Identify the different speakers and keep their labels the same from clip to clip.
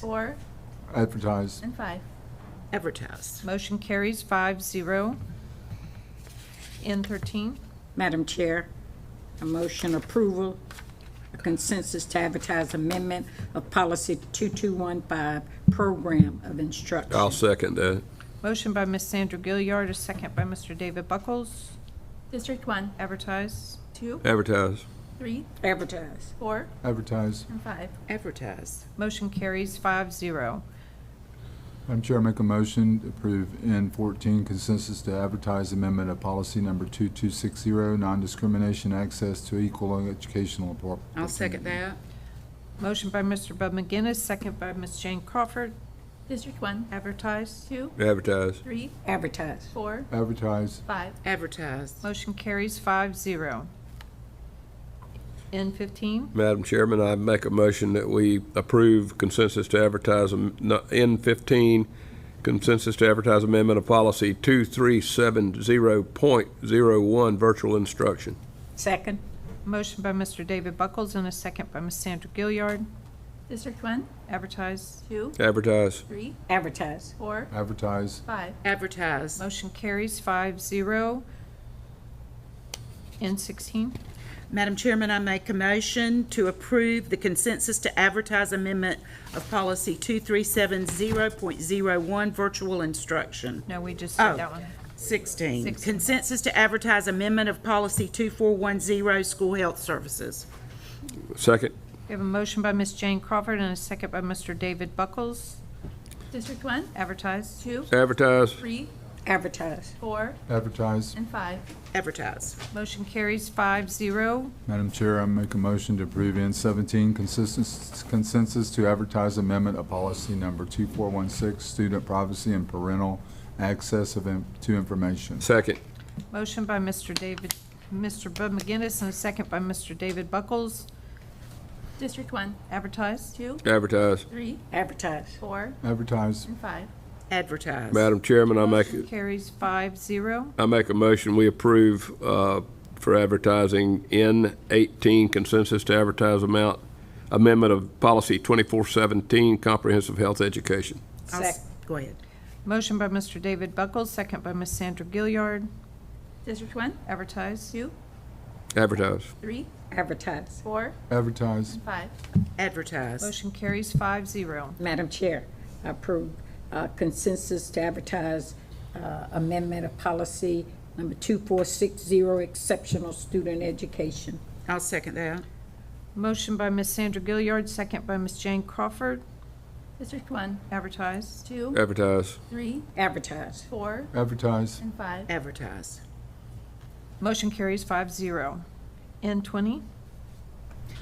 Speaker 1: Four
Speaker 2: advertised,
Speaker 1: and five.
Speaker 3: advertised.
Speaker 1: Motion carries five zero. N thirteen,
Speaker 4: Madam Chair, a motion approval, a consensus to advertise amendment of policy 2215, program of instruction.
Speaker 5: I'll second that.
Speaker 1: motion by Ms. Sandra Gilliard, a second by Mr. David Buckles,
Speaker 6: District one,
Speaker 1: advertise.
Speaker 6: two,
Speaker 5: Advertise.
Speaker 6: three,
Speaker 4: Advertise.
Speaker 6: four,
Speaker 2: advertised.
Speaker 6: and five.
Speaker 3: Advertised.
Speaker 1: Motion carries five zero.
Speaker 2: Madam Chair, I make a motion to approve N14 consensus to advertise amendment of policy number 2260, non-discrimination access to equal educational oppor- opportunity.
Speaker 3: I'll second that.
Speaker 1: Motion by Mr. Bud McGinnis, second by Ms. Jane Crawford,
Speaker 6: District one,
Speaker 1: advertise.
Speaker 6: two,
Speaker 5: Advertise.
Speaker 6: three,
Speaker 4: Advertise.
Speaker 6: four,
Speaker 2: Advertised,
Speaker 6: five.
Speaker 3: Advertised.
Speaker 1: Motion carries five zero. N fifteen,
Speaker 5: Madam Chairman, I make a motion that we approve consensus to advertise am- no- N15, consensus to advertise amendment of policy 2370.01, virtual instruction.
Speaker 4: Second.
Speaker 1: motion by Mr. David Buckles and a second by Ms. Sandra Gilliard,
Speaker 6: District one,
Speaker 1: advertise.
Speaker 6: two,
Speaker 5: Advertise.
Speaker 6: three,
Speaker 4: Advertise.
Speaker 6: four,
Speaker 2: advertised,
Speaker 6: five.
Speaker 3: Advertised.
Speaker 1: Motion carries five zero. N sixteen,
Speaker 3: Madam Chairman, I make a motion to approve the consensus to advertise amendment of policy 2370.01, virtual instruction.
Speaker 1: no, we just
Speaker 3: Oh.
Speaker 1: did that one.
Speaker 3: 16,
Speaker 1: Sixteen.
Speaker 3: consensus to advertise amendment of policy 2410, school health services.
Speaker 5: Second.
Speaker 1: We have a motion by Ms. Jane Crawford and a second by Mr. David Buckles,
Speaker 6: District one,
Speaker 1: advertise.
Speaker 6: two,
Speaker 5: Advertise.
Speaker 6: three,
Speaker 4: Advertise.
Speaker 6: four,
Speaker 2: advertised.
Speaker 6: and five.
Speaker 3: Advertised.
Speaker 1: Motion carries five zero.
Speaker 2: Madam Chair, I make a motion to approve N17 consensus consensus to advertise amendment of policy number 2416, student privacy and parental access of in- to information.
Speaker 5: Second.
Speaker 1: Motion by Mr. David, Mr. Bud McGinnis and a second by Mr. David Buckles,
Speaker 6: District one,
Speaker 1: advertise.
Speaker 6: two,
Speaker 5: Advertise.
Speaker 6: three,
Speaker 4: Advertise.
Speaker 6: four,
Speaker 2: Advertised,
Speaker 6: and five.
Speaker 3: Advertised.
Speaker 5: Madam Chairman, I make,
Speaker 1: Motion carries five zero.
Speaker 5: I make a motion, we approve uh, for advertising N18, consensus to advertise amount, amendment of policy 2417, comprehensive health education.
Speaker 3: I'll s- Go ahead.
Speaker 1: Motion by Mr. David Buckles, second by Ms. Sandra Gilliard,
Speaker 6: District one,
Speaker 1: advertise.
Speaker 6: two,
Speaker 5: Advertise.
Speaker 6: three,
Speaker 4: Advertise.
Speaker 6: four,
Speaker 2: advertised,
Speaker 6: and five.
Speaker 3: Advertised.
Speaker 1: Motion carries five zero.
Speaker 4: Madam Chair, I approve uh, consensus to advertise uh, amendment of policy number 2460, exceptional student education.
Speaker 3: I'll second that.
Speaker 1: Motion by Ms. Sandra Gilliard, second by Ms. Jane Crawford,
Speaker 6: District one,
Speaker 1: advertise.
Speaker 6: two,
Speaker 5: Advertise.
Speaker 6: three,
Speaker 4: Advertise.
Speaker 6: four,
Speaker 2: advertised,
Speaker 6: and five.
Speaker 3: Advertised.
Speaker 1: Motion carries five zero. N twenty,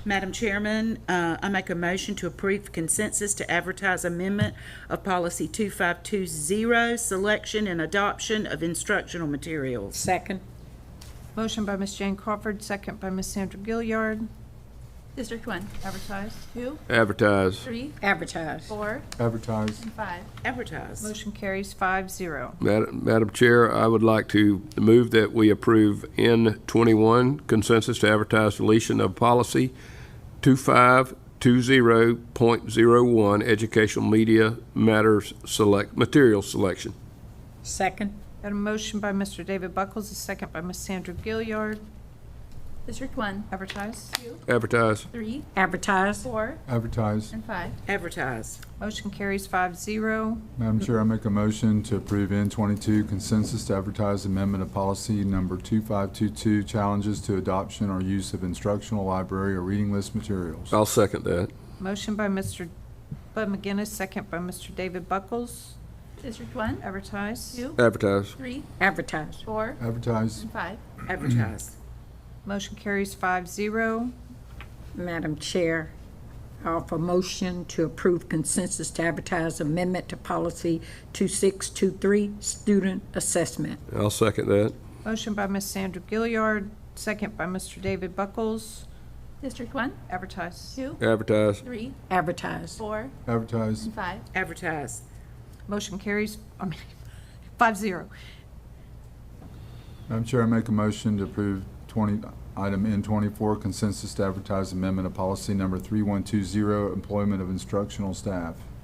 Speaker 3: Madam Chairman, uh, I make a motion to approve consensus to advertise amendment of policy 2520, selection and adoption of instructional materials.
Speaker 4: Second.
Speaker 1: motion by Ms. Jane Crawford, second by Ms. Sandra Gilliard,
Speaker 6: District one,
Speaker 1: advertise.
Speaker 6: two,
Speaker 5: Advertise.
Speaker 6: three,
Speaker 4: Advertise.
Speaker 6: four,
Speaker 2: advertised,
Speaker 6: and five.
Speaker 3: Advertise.
Speaker 1: Motion carries five zero.
Speaker 5: Madam Madam Chair, I would like to move that we approve N21, consensus to advertise deletion of policy 2520.01, educational media matters select, material selection.
Speaker 4: Second.
Speaker 1: Got a motion by Mr. David Buckles, a second by Ms. Sandra Gilliard,
Speaker 6: District one,
Speaker 1: advertise.
Speaker 5: Advertise.
Speaker 6: three,
Speaker 4: Advertise.
Speaker 6: four,
Speaker 2: advertised.
Speaker 6: and five.
Speaker 3: Advertise.
Speaker 1: Motion carries five zero.
Speaker 2: Madam Chair, I make a motion to approve N twenty-two consensus to advertise amendment of policy number two-five-two-two, challenges to adoption or use of instructional library or reading list materials.
Speaker 5: I'll second that.
Speaker 1: Motion by Mr. Bud McGinnis, second by Mr. David Buckles,
Speaker 6: District one,
Speaker 1: advertise.
Speaker 6: two,
Speaker 5: Advertise.
Speaker 6: three,
Speaker 4: Advertise.
Speaker 6: four,
Speaker 2: Advertised,
Speaker 6: and five.
Speaker 3: Advertise.
Speaker 1: Motion carries five zero.
Speaker 4: Madam Chair, I offer motion to approve consensus to advertise amendment to policy 2623, student assessment.
Speaker 5: I'll second that.
Speaker 1: Motion by Ms. Sandra Gilliard, second by Mr. David Buckles,
Speaker 6: District one,
Speaker 1: advertise.
Speaker 6: two,
Speaker 5: Advertise.
Speaker 6: three,
Speaker 4: Advertise.
Speaker 6: four,
Speaker 2: advertised,
Speaker 6: and five.
Speaker 3: Advertise.
Speaker 1: Motion carries, I mean, five zero.
Speaker 2: Madam Chair, I make a motion to approve twenty, item N twenty-four consensus to advertise amendment of policy number three-one-two-zero, employment of instructional staff.